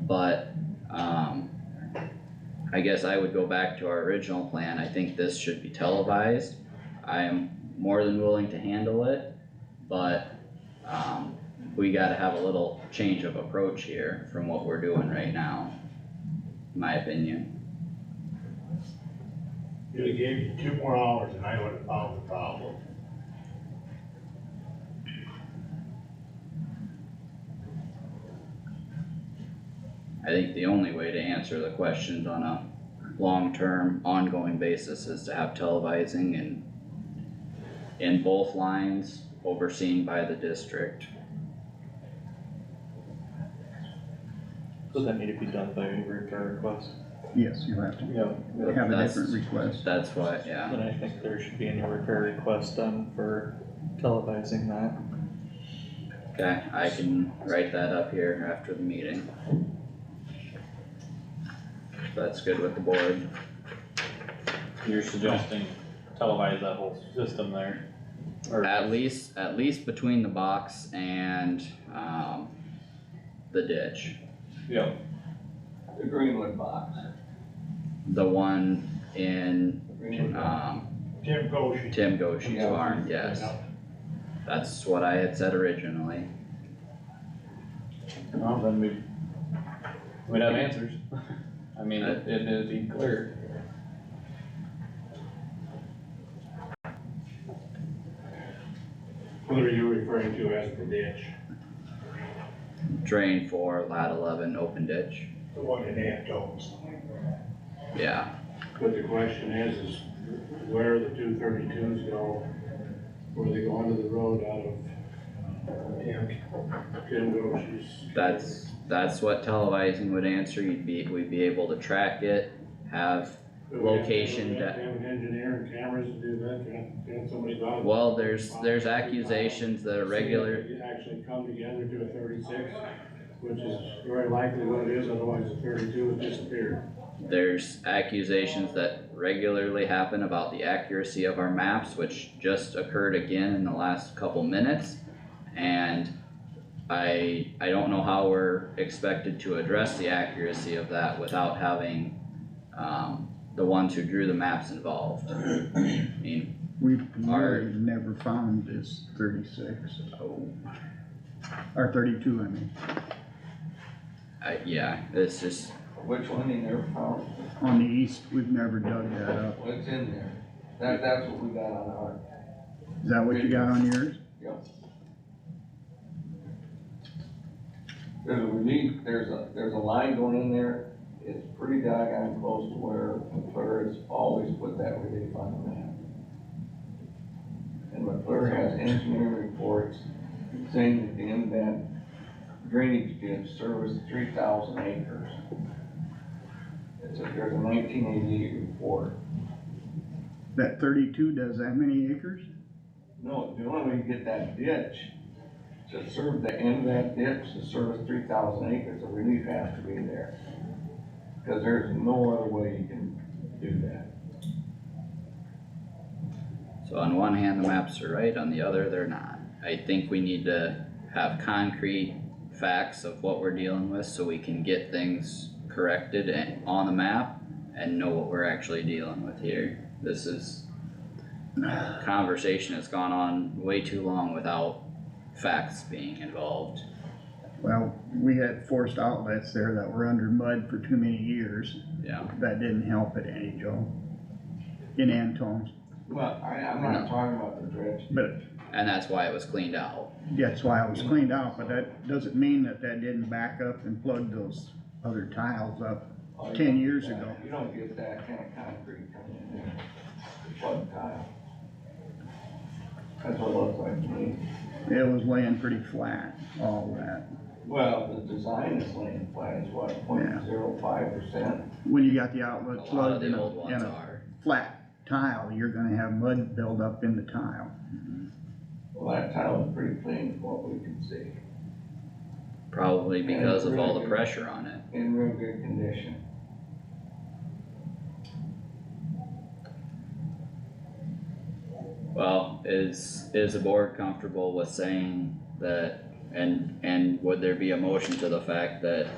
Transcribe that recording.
But, um, I guess I would go back to our original plan, I think this should be televised. I am more than willing to handle it, but, um, we gotta have a little change of approach here from what we're doing right now. in My opinion, If They gave you two more hours and I would have found the problem. I think the only way to answer the questions on a long-term, ongoing basis is to have televising and in both lines overseen by the district. Does that need to be done by any repair request? Yes, you'll have to Yeah. have a That's- different request. That's why, yeah, Then I think there should be any repair request done for televising that. okay, I can write that up here after the meeting. If That's good with the board, You're suggesting televise that whole system there? Or- at least, at least between the box and, um, the ditch. Yep, The Greenwood box. The one in, The Greenwood box. um, Tim Goshen. Tim Goshen's farm, yes, that's what I had said originally. well, then we, we'd have answers. I mean, it, it'd be clear. What are you referring to as the ditch? Drain four, lat eleven, open ditch, The one in Antones. yeah, But the question is, is where the two thirty-twos go? Where they go onto the road out of uh, Tim- Tim Goshen's? that's, that's what televising would answer, you'd be, we'd be able to track it, have Do we have to do location that? de- Have an engineer and cameras to do that, can, can somebody go out? Well, there's, there's accusations that a regular, See if they Actually come together to a thirty-six, which is very likely what it is, otherwise the thirty-two would disappear. there's accusations that regularly happen about the accuracy of our maps, which just occurred again in the last couple minutes. And I, I don't know how we're expected to address the accuracy of that without having, um, the ones who drew the maps involved. I mean, We've Our- really never found this thirty-six, oh, or thirty-two, I mean, I, yeah, it's just, Which one in there found, on the east, we've never dug that up. what's in there? That, that's what we got on our, Is that what you got on yours? yep. There's a relief, there's a, there's a line going in there, it's pretty doggone close to where McClure has always put that relief on the map. And McClure has engineering reports saying that the inland drainage ditch serviced three thousand acres. It's a, there's a nineteen eighty-eight report. That thirty-two does that many acres? No, the only way you get that ditch, to serve the end of that ditch, to service three thousand acres, the relief has to be there. Cause there's no other way you can do that. So on one hand, the maps are right, on the other, they're not. I think we need to have concrete facts of what we're dealing with so we can get things corrected and on the map and know what we're actually dealing with here. This is conversation that's gone on way too long without facts being involved. Well, we had forced outlets there that were under mud for too many years, Yeah, that didn't help it any, Joe. In Antones, Well, I, I'm not talking about the dredge. but and that's why it was cleaned out. that's why it was cleaned out, but that doesn't mean that that didn't back up and plug those other tiles up. Oh, you 10 don't get years that. ago. You don't get that kind of concrete coming in there, the flood tile. That's what it looks like to me. It was laying pretty flat, all that. Well, the design is laying flat, it's what, point zero five percent? When you got the A outlet lot of plugged in the a, old in ones a are. flat tile, you're gonna have mud build up in the tile. Mm-hmm. Well, that tile is pretty clean from what we can see, Probably because of all the pressure on it. in real good condition. Well, is, is the board comfortable with saying that, and, and would there be a motion to the fact that